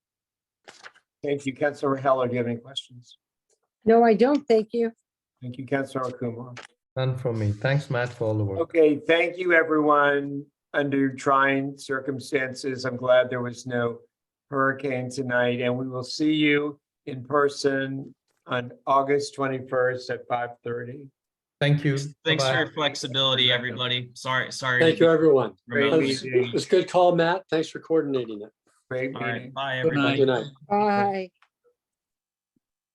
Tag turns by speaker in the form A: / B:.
A: Thank you, Councilor Heller. Do you have any questions?
B: No, I don't. Thank you.
A: Thank you, Councilor Kumar.
C: None from me. Thanks, Matt, for all the work.
A: Okay, thank you, everyone. Under trying circumstances, I'm glad there was no hurricane tonight, and we will see you in person on August twenty-first at five thirty.
C: Thank you.
D: Thanks for
C: Bye-bye.
D: your flexibility, everybody. Sorry, sorry. to
E: Thank you,
D: be
E: everyone.
A: Great
E: That
D: remote.
E: was- It was a good call, Matt. Thanks for coordinating it.
A: Great
D: All right,
A: meeting.
D: bye,
E: Have a
D: everybody.
E: Good night.
B: Bye.